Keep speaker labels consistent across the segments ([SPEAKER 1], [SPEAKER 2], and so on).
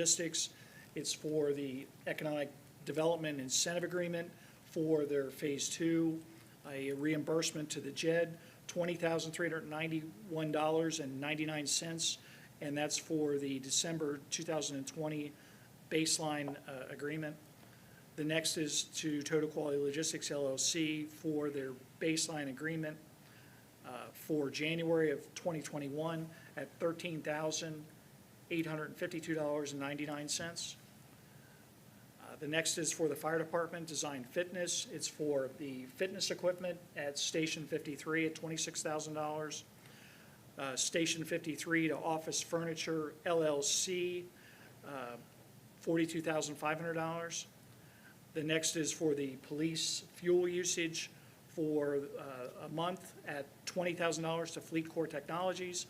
[SPEAKER 1] logistics. It's for the economic development incentive agreement for their phase two, a reimbursement to the JED, twenty thousand three hundred ninety-one dollars and ninety-nine cents. And that's for the December two thousand and twenty baseline, uh, agreement. The next is to Total Quality Logistics LLC for their baseline agreement uh, for January of 2021 at $13,852.99. Uh, The next is for the Fire Department Design Fitness. It's for the fitness equipment at Station 53 at $26,000. Uh, Station 53 to Office Furniture LLC, uh, $42,500. The next is for the police fuel usage for uh, a month at $20,000 to Fleet Core Technologies.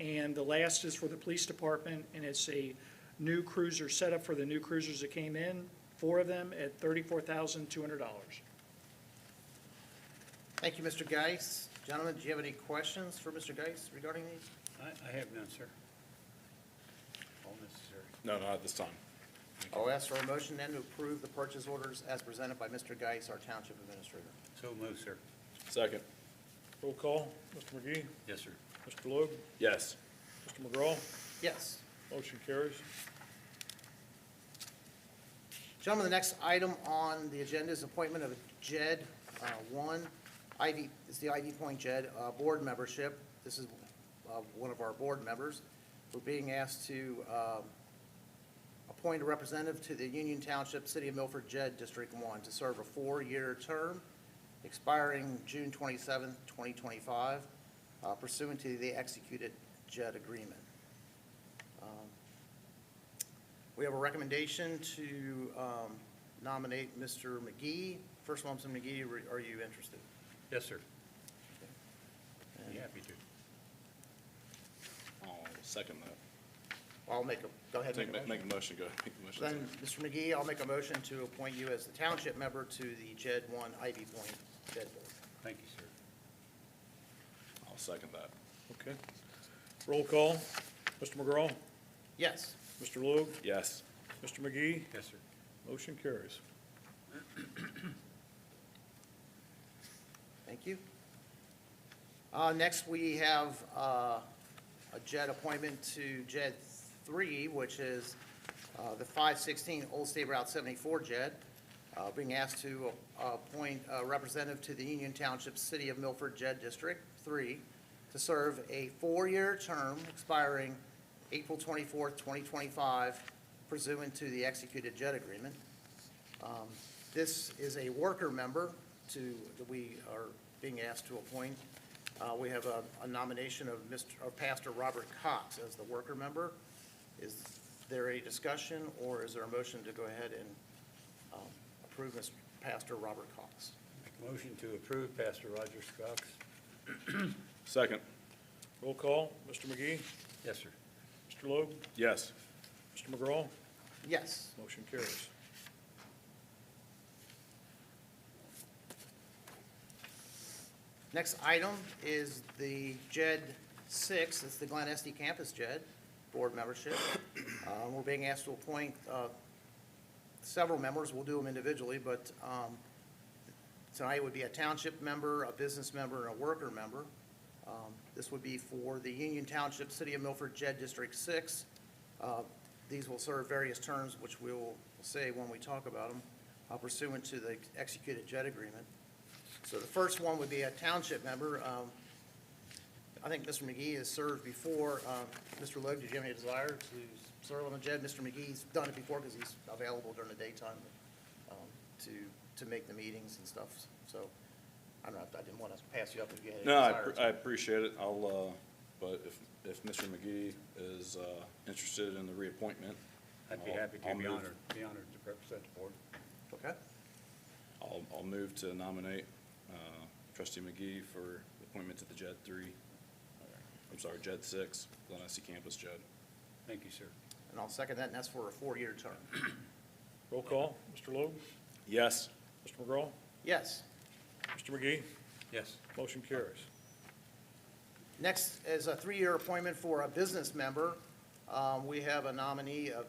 [SPEAKER 1] And the last is for the police department, and it's a new cruiser setup for the new cruisers that came in, four of them, at $34,200.
[SPEAKER 2] Thank you, Mr. Geis. Gentlemen, do you have any questions for Mr. Geis regarding these?
[SPEAKER 3] I, I have none, sir. All necessary.
[SPEAKER 4] No, not at this time.
[SPEAKER 2] I'll ask for a motion then to approve the purchase orders as presented by Mr. Geis, our Township Administrator.
[SPEAKER 3] So moved, sir.
[SPEAKER 4] Second.
[SPEAKER 5] Roll call, Mr. McGee,
[SPEAKER 3] Yes, sir.
[SPEAKER 5] Mr. Logue,
[SPEAKER 4] Yes.
[SPEAKER 5] Mr. McGraw,
[SPEAKER 2] Yes.
[SPEAKER 5] motion carries.
[SPEAKER 2] Gentlemen, the next item on the agenda is appointment of JED uh, 1, ID, it's the ID Point JED uh, Board membership. This is uh, one of our board members. We're being asked to um, appoint a representative to the Union Township City of Milford JED District 1 to serve a four-year term expiring June 27, 2025 uh, pursuant to the executed JED agreement. Um, we have a recommendation to um, nominate Mr. McGee. First, Lumsden McGee, re- are you interested?
[SPEAKER 3] Yes, sir. Be happy to.
[SPEAKER 4] I'll second that.
[SPEAKER 2] I'll make a, go ahead. and
[SPEAKER 4] Take,
[SPEAKER 2] make a motion.
[SPEAKER 4] make make a motion, go ahead, make the
[SPEAKER 2] Then,
[SPEAKER 4] motion.
[SPEAKER 2] Mr. McGee, I'll make a motion to appoint you as the township member to the JED 1 Ivy Point JED Board.
[SPEAKER 3] Thank you, sir.
[SPEAKER 4] I'll second that.
[SPEAKER 5] Okay. Roll call, Mr. McGraw,
[SPEAKER 2] Yes.
[SPEAKER 5] Mr. Logue,
[SPEAKER 4] Yes.
[SPEAKER 5] Mr. McGee,
[SPEAKER 3] Yes, sir.
[SPEAKER 5] motion carries.
[SPEAKER 2] Thank you. Uh, Next, we have uh, a JED appointment to JED 3, which is uh, the 516 Old State Route 74 JED, uh, being asked to uh, appoint a representative to the Union Township City of Milford JED District 3 to serve a four-year term expiring April 24, 2025, pursuant to the executed JED agreement. Um, This is a worker member to, that we are being asked to appoint. Uh, We have a a nomination of Mr., of Pastor Robert Cox as the worker member. Is there a discussion, or is there a motion to go ahead and um, approve Mr. Pastor Robert Cox?
[SPEAKER 3] Make a motion to approve Pastor Roger Cox.
[SPEAKER 4] Second.
[SPEAKER 5] Roll call, Mr. McGee,
[SPEAKER 3] Yes, sir.
[SPEAKER 5] Mr. Logue,
[SPEAKER 4] Yes.
[SPEAKER 5] Mr. McGraw,
[SPEAKER 2] Yes.
[SPEAKER 5] motion carries.
[SPEAKER 2] Next item is the JED 6, it's the Glen Estee Campus JED Board membership. Uh, We're being asked to appoint uh, several members, we'll do them individually, but um, tonight would be a township member, a business member, and a worker member. Um, This would be for the Union Township, City of Milford JED District 6. Uh, These will serve various terms, which we will say when we talk about them, uh, pursuant to the executed JED agreement. So the first one would be a township member. Um, I think Mr. McGee has served before. Um, Mr. Logue, did you have any desire to serve on the JED? Mr. McGee's done it before because he's available during the daytime um, to, to make the meetings and stuff. So I don't know, I didn't want to pass you up if you had any
[SPEAKER 4] No, I,
[SPEAKER 2] desire.
[SPEAKER 4] appre- I appreciate it. I'll, uh, but if, if Mr. McGee is, uh, interested in the reappointment,
[SPEAKER 3] I'd be
[SPEAKER 4] I'll-
[SPEAKER 3] happy to,
[SPEAKER 4] I'll
[SPEAKER 3] be
[SPEAKER 4] move.
[SPEAKER 3] honored, be honored to represent the board.
[SPEAKER 2] Okay.
[SPEAKER 4] I'll, I'll move to nominate, uh, trustee McGee for appointment to the JED three. I'm sorry, JED six, Glen Estee Campus JED.
[SPEAKER 3] Thank you, sir.
[SPEAKER 2] And I'll second that, and that's for a four-year term.
[SPEAKER 5] Roll call, Mr. Logue,
[SPEAKER 4] Yes.
[SPEAKER 5] Mr. McGraw,
[SPEAKER 2] Yes.
[SPEAKER 5] Mr. McGee,
[SPEAKER 3] Yes.
[SPEAKER 5] motion carries.
[SPEAKER 2] Next is a three-year appointment for a business member. Um, We have a nominee of